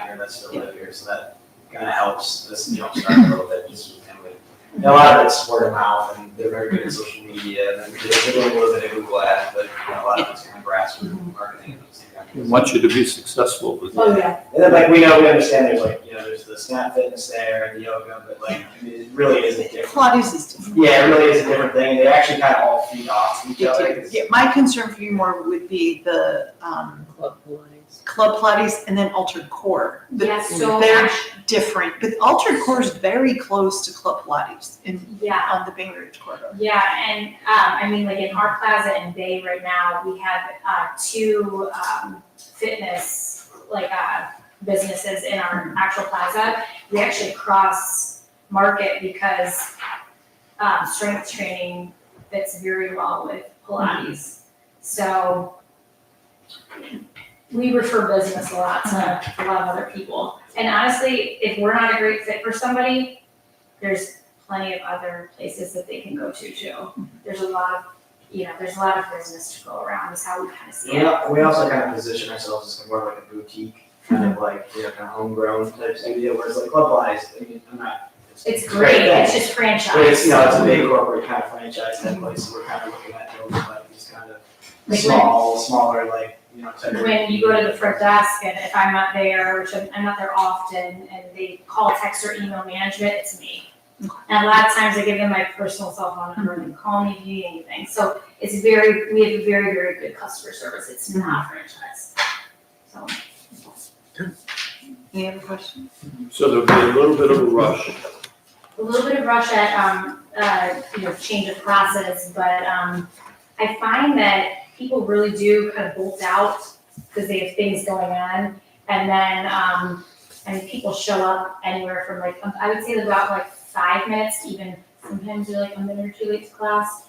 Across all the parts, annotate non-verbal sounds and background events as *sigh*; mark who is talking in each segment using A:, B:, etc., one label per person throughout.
A: family that still live here, so that kind of helps this jumpstart a little bit, just with family. And a lot of it's word of mouth, and they're very good at social media, and they're doing a little bit of Google Ads, but you know, a lot of it's kind of grassroots marketing. and those
B: We
A: things.
B: want you to be successful with
C: Oh,
B: that.
C: yeah,
A: And then like we know, we understand there's like, you know, there's the snap fitness there and the yoga, but like, I mean, it really is a different.
C: Pilates is different.
A: Yeah, it really is a different thing. They actually kind of all feed off each other. It's-
C: Yeah, my concern for you more would be the, um,
D: Club Pilates.
C: club Pilates and then altered core. The-
E: Yeah, so
C: They're
E: actu-
C: different, but altered core is very close to club Pilates in,
E: yeah,
C: on the Bay Ridge corridor.
E: yeah, and um, I mean, like in our plaza in Bay right now, we have uh, two um, fitness like uh, businesses in our actual plaza. We actually cross market because um, strength training fits very well with Pilates. So we refer business a lot to a lot of other people. And honestly, if we're not a great fit for somebody, there's plenty of other places that they can go to too. There's a lot of, you know, there's a lot of business to go around is how we kind of see
A: We,
E: it.
A: al- we also kind of position ourselves as kind of more like a boutique, kind of like, you know, kind of homegrown type studio, whereas like Club Lies, I mean, I'm not.
E: It's great,
A: thing,
E: it's just franchise.
A: But it's, you know, it's a big corporate kind of franchise type place, so we're kind of looking at those, like, these kind of
E: Like
A: small, smaller, like, you know, type of.
E: When you go to the
A: *laughs*
E: front desk and if I'm not there, which I'm, I'm not there often, and they call, text, or email management, it's me. And a lot of times I give them my personal cell phone number and they call me if you need anything. So it's very, we have a very, very good customer service. It's not franchise. So,
C: Any other questions?
B: So there'll be a little bit of a rush.
E: a little bit of rush at, um, uh, you know, change of process, but, um, I find that people really do kind of bolt out because they have things going on. And then, um, and people show up anywhere from like, um, I would say about like five minutes, to even sometimes they're like a minute or two late to class.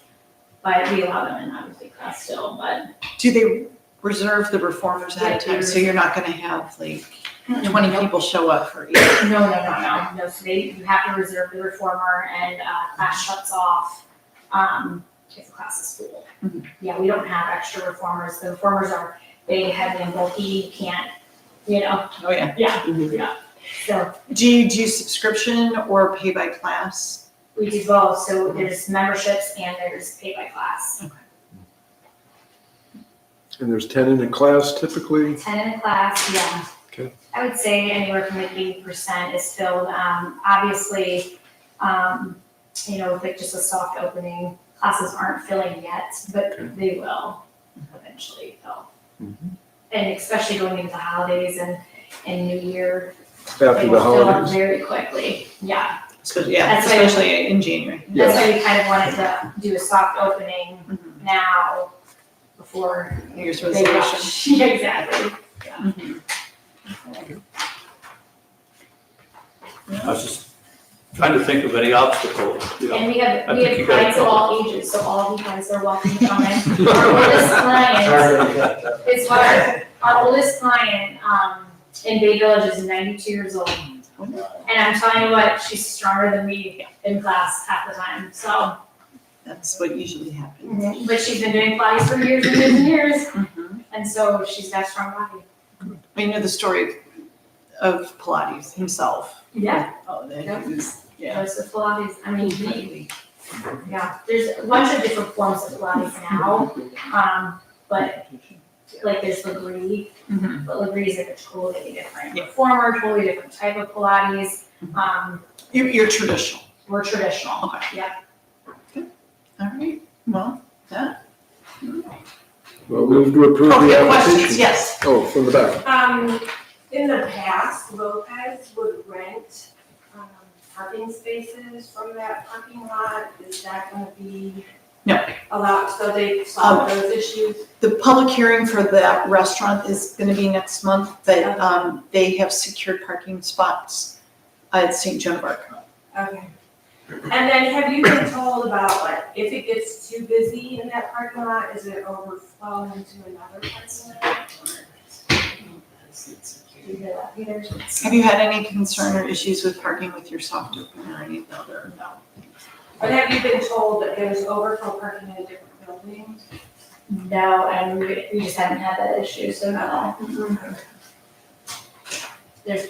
E: But we allow them in obviously class still, but
C: Do they reserve the reformers ahead of time, so you're not gonna have like twenty people show up for each?
E: No, no, no, no, no, so they, you have to reserve the reformer and, uh, class shuts off, um, if the class is full.
C: Mhm.
E: Yeah, we don't have extra reformers, the reformers are, they have been bulky, you can't, you know,
C: Oh, yeah.
E: so
C: Do you do subscription or pay by class?
E: we do both, so there's memberships and there's pay by class.
F: And there's ten in a class typically,
E: Ten in a class, yeah.
F: Okay.
E: I would say anywhere from like eighty percent is filled, um, obviously, um, you know, with like just a soft opening, classes aren't filling yet,
F: Okay. Mm-hmm.
E: but they will eventually fill. And especially going into the holidays and, and New Year,
F: after
E: it
F: the
E: will fill up
F: holidays.
E: very quickly, yeah.
C: Especially, yeah,
E: That's why-
C: especially in January.
E: That's why we kind of wanted to do a soft opening
F: Mm-hmm.
C: Mhm.
E: now before
C: New Year's
E: they
C: resolution.
E: rush. *laughs* Yeah, exactly.
B: I was just trying to think of any obstacle, you know.
E: And we have,
B: I
E: we
B: think
E: have
B: you gotta
E: clients of
B: go.
E: all ages, so all of you guys are welcome to
B: *laughs*
E: come in. Our oldest client, *laughs* it's our, our oldest client, um, in Bay Village is ninety-two years old. And
B: Oh.
E: I'm telling you what, she's stronger than me in class half the time, so.
C: That's what usually happens.
E: But she's been doing Pilates for years and years and years,
C: Mhm.
E: and so she's got a strong body.
C: We know the story of Pilates himself.
E: Yeah.
C: Oh,
E: Yeah.
C: that he was, yeah.
E: Goes with Pilates, I mean, he,
C: completely.
E: Yeah, there's a bunch of different forms of Pilates now, um, but like there's Legree,
C: Mhm.
E: but Legree is like a totally different
C: Yeah. Mm-hmm.
E: former, totally different type of Pilates. Um,
C: You're, you're traditional.
E: we're traditional.
C: Okay.
E: Yeah.
C: Good. All right, well,
F: Well, move to approve the
C: okay, questions,
F: application.
C: yes.
F: Oh, from the back.
G: Um, in the past, Lopez would rent, um, parking spaces from that parking lot. Is that gonna be?
C: No. Oh.
G: Allowed, so they solve those issues?
C: The public hearing for that restaurant is gonna be next month, but, um, they have secured parking spots at St. Joan of Arc.
G: Okay. And then have you been told about like, if it gets too busy in that parking lot, is it overflowing into another parking lot?
E: Do you hear that, Peter?
C: Have you had any concern or issues with parking with your soft open or any other?
G: Or have you been told that there's overflow parking in a different building? Mm-hmm.
E: No, and we we just haven't had that issue, so no.